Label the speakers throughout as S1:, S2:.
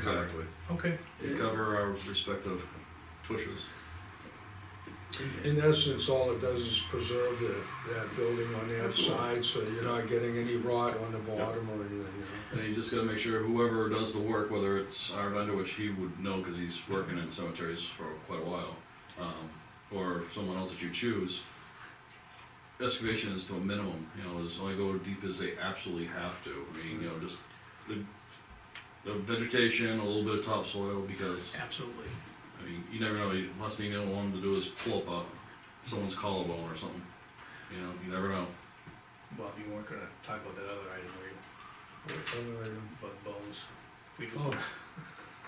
S1: covered.
S2: Exactly.
S1: Okay.
S2: We cover our respective pushes.
S3: In essence, all it does is preserve the, that building on that side, so you're not getting any rot on the bottom or anything, you
S2: And you just gotta make sure whoever does the work, whether it's our vendor, which he would know, cause he's working in cemeteries for quite a while, um, or someone else that you choose, excavation is to a minimum, you know, is only go deep as they absolutely have to, I mean, you know, just the, the vegetation, a little bit of topsoil, because,
S1: Absolutely.
S2: I mean, you never know, you- last thing you don't want them to do is pull up a, someone's collarbone or something, you know, you never know.
S4: Bob, you weren't gonna talk about that other item, were you,
S3: know. Other item.
S4: about bones? If we could-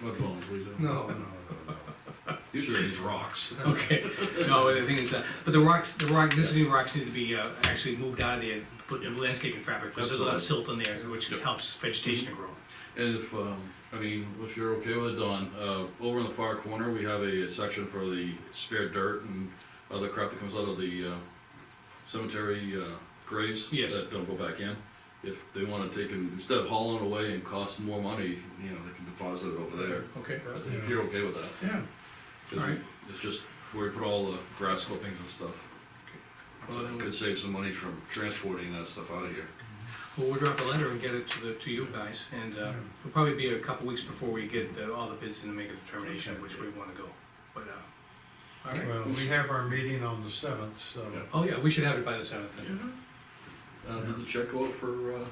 S3: Oh,
S2: Mud bones, we do,
S3: no, no, no,
S2: usually these rocks.
S5: Oh, Okay, no, the thing is, uh, but the rocks, the rock, this new rocks need to be, uh, actually moved out of there, and put in landscaping fabric, because there's a lot of silt in there, which
S2: Yep.
S5: helps vegetation to grow.
S2: And if, um, I mean, if you're okay with it, Don, uh, over in the far corner, we have a section for the spare dirt and other crap that comes out of the, uh, cemetery, uh, graves.
S5: Yes.
S2: That don't go back in. If they wanna take and, instead of hauling it away and costing more money, you know, they can deposit it over there.
S1: Okay.
S2: But If you're okay with that.
S1: Yeah.
S2: 'cause
S5: Alright.
S2: It's just where we put all the grass clippings and stuff. So it could save some money from transporting that stuff out of here.
S5: Well, we'll draft a letter and get it to the, to you guys, and, uh,
S4: Mm-hmm.
S5: it'll probably be a couple weeks before we get the- all the bids in to make a determination of which way we wanna go, but, uh, all right.
S6: Well, we have our meeting on the seventh, so.
S2: Yeah.
S5: Oh, yeah, we should have it by the seventh, then.
S7: Mm-hmm.
S2: Uh, did the check go out for, uh,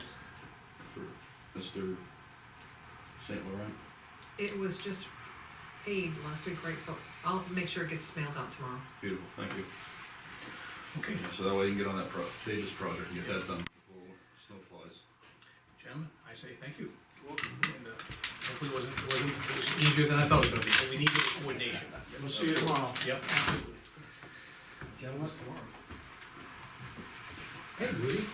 S2: for Mr. Saint Laurent?
S7: It was just paid last week, right, so I'll make sure it gets mailed out tomorrow.
S2: Beautiful, thank you.
S5: okay,
S2: So that way you can get on that pro, Pages project and get that done before snow flies.
S5: gentlemen, I say thank you. And, uh, hopefully it wasn't, it wasn't, it was easier than I thought it was gonna be, but we need the coordination.
S6: We'll see you tomorrow.
S5: Yep, absolutely.
S6: Gentlemen's tomorrow.
S3: no. Hey, Woody.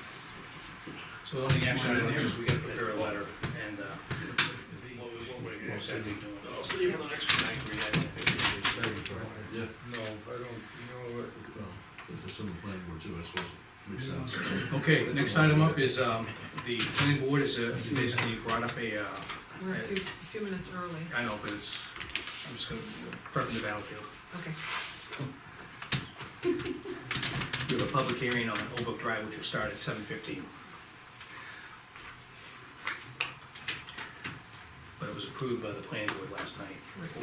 S5: So the only action item is we gotta prepare a letter and, uh,
S4: What we, what we're gonna be doing. I'll stay for the next one. I agree, I don't think we should.
S2: Yeah,
S3: No, I don't, know.
S2: well, there's some planning board too, I suppose, makes sense.
S5: Okay, next item up is, um, the planning board is, uh, basically brought up a, uh,
S7: We're a few, a few minutes early,
S5: I know, but it's, I'm just gonna, prepping the battlefield.
S7: okay.
S5: We have a public hearing on Oak Drive, which will start at seven fifteen. But it was approved by the planning board last night, for, for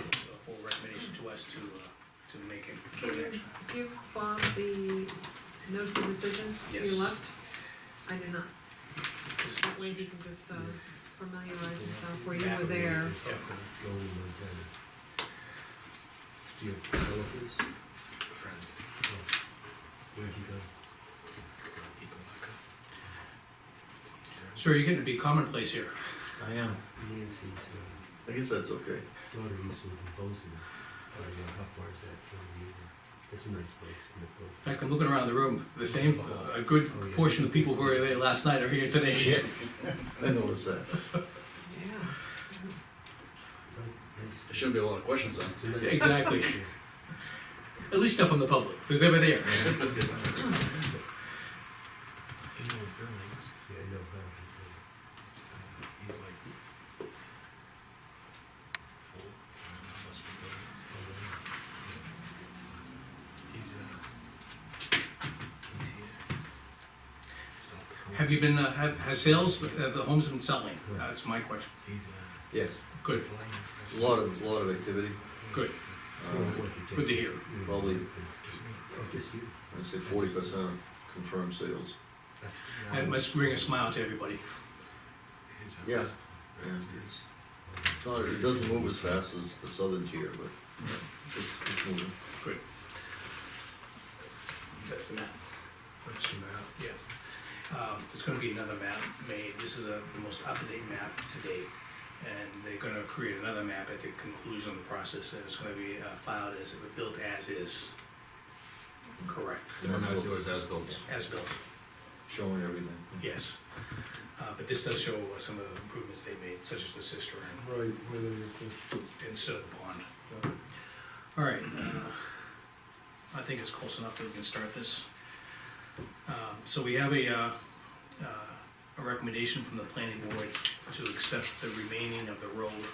S5: recommendation to us to, uh, to make it,
S7: Can
S5: give it
S7: you
S5: action.
S7: give Bob the notice of decision to
S5: Yes.
S7: your left? I did not,
S5: Just-
S7: that way he can just, uh, familiarize himself where you were there.
S1: Do you have relatives? Friends. Where'd you go?
S5: Sir, you're getting to be commonplace here.
S1: I am. Nancy's uh,
S8: I guess that's okay.
S1: daughter used to live in Bozeman. I don't know how far is that from you. That's a nice place, Mid Bozeman.
S5: In fact, I'm looking around the room, the same, a good portion of people who were there last night are here today.
S8: I noticed that.
S7: Yeah.
S1: Nice.
S2: There shouldn't be a lot of questions then.
S1: It's a nice-
S5: Exactly. At least not from the public, because they were there.
S1: Yeah, I know how. Oh,
S5: Have you been, uh, have, has sales, have the homes been selling? That's my question.
S8: Yes,
S5: Hmm. Good,
S8: a lot of, a lot of activity.
S5: good,
S8: Uh,
S5: good to hear.
S8: Probably,
S1: Just you.
S8: I'd say forty percent confirmed sales.
S5: That must bring a smile to everybody.
S8: Yeah. And it's, it's not, it doesn't move as fast as the southern tier, but it's, it's moving.
S5: That's the map. That's the map. Yeah. Um, there's gonna be another map made, this is a, the most up-to-date map to date. And they're gonna create another map at the conclusion of the process, and it's gonna be uh, filed as, built as is. Correct,
S2: And that's yours as built.
S5: as built,
S8: Showing everything.
S5: yes. Uh, but this does show uh, some of the improvements they made, such as the cistern
S3: Right, where they put-
S5: and so the pond. All right, uh, I think it's close enough that we can start this. Um, So we have a, uh, uh, a recommendation from the planning board to accept the remaining of the road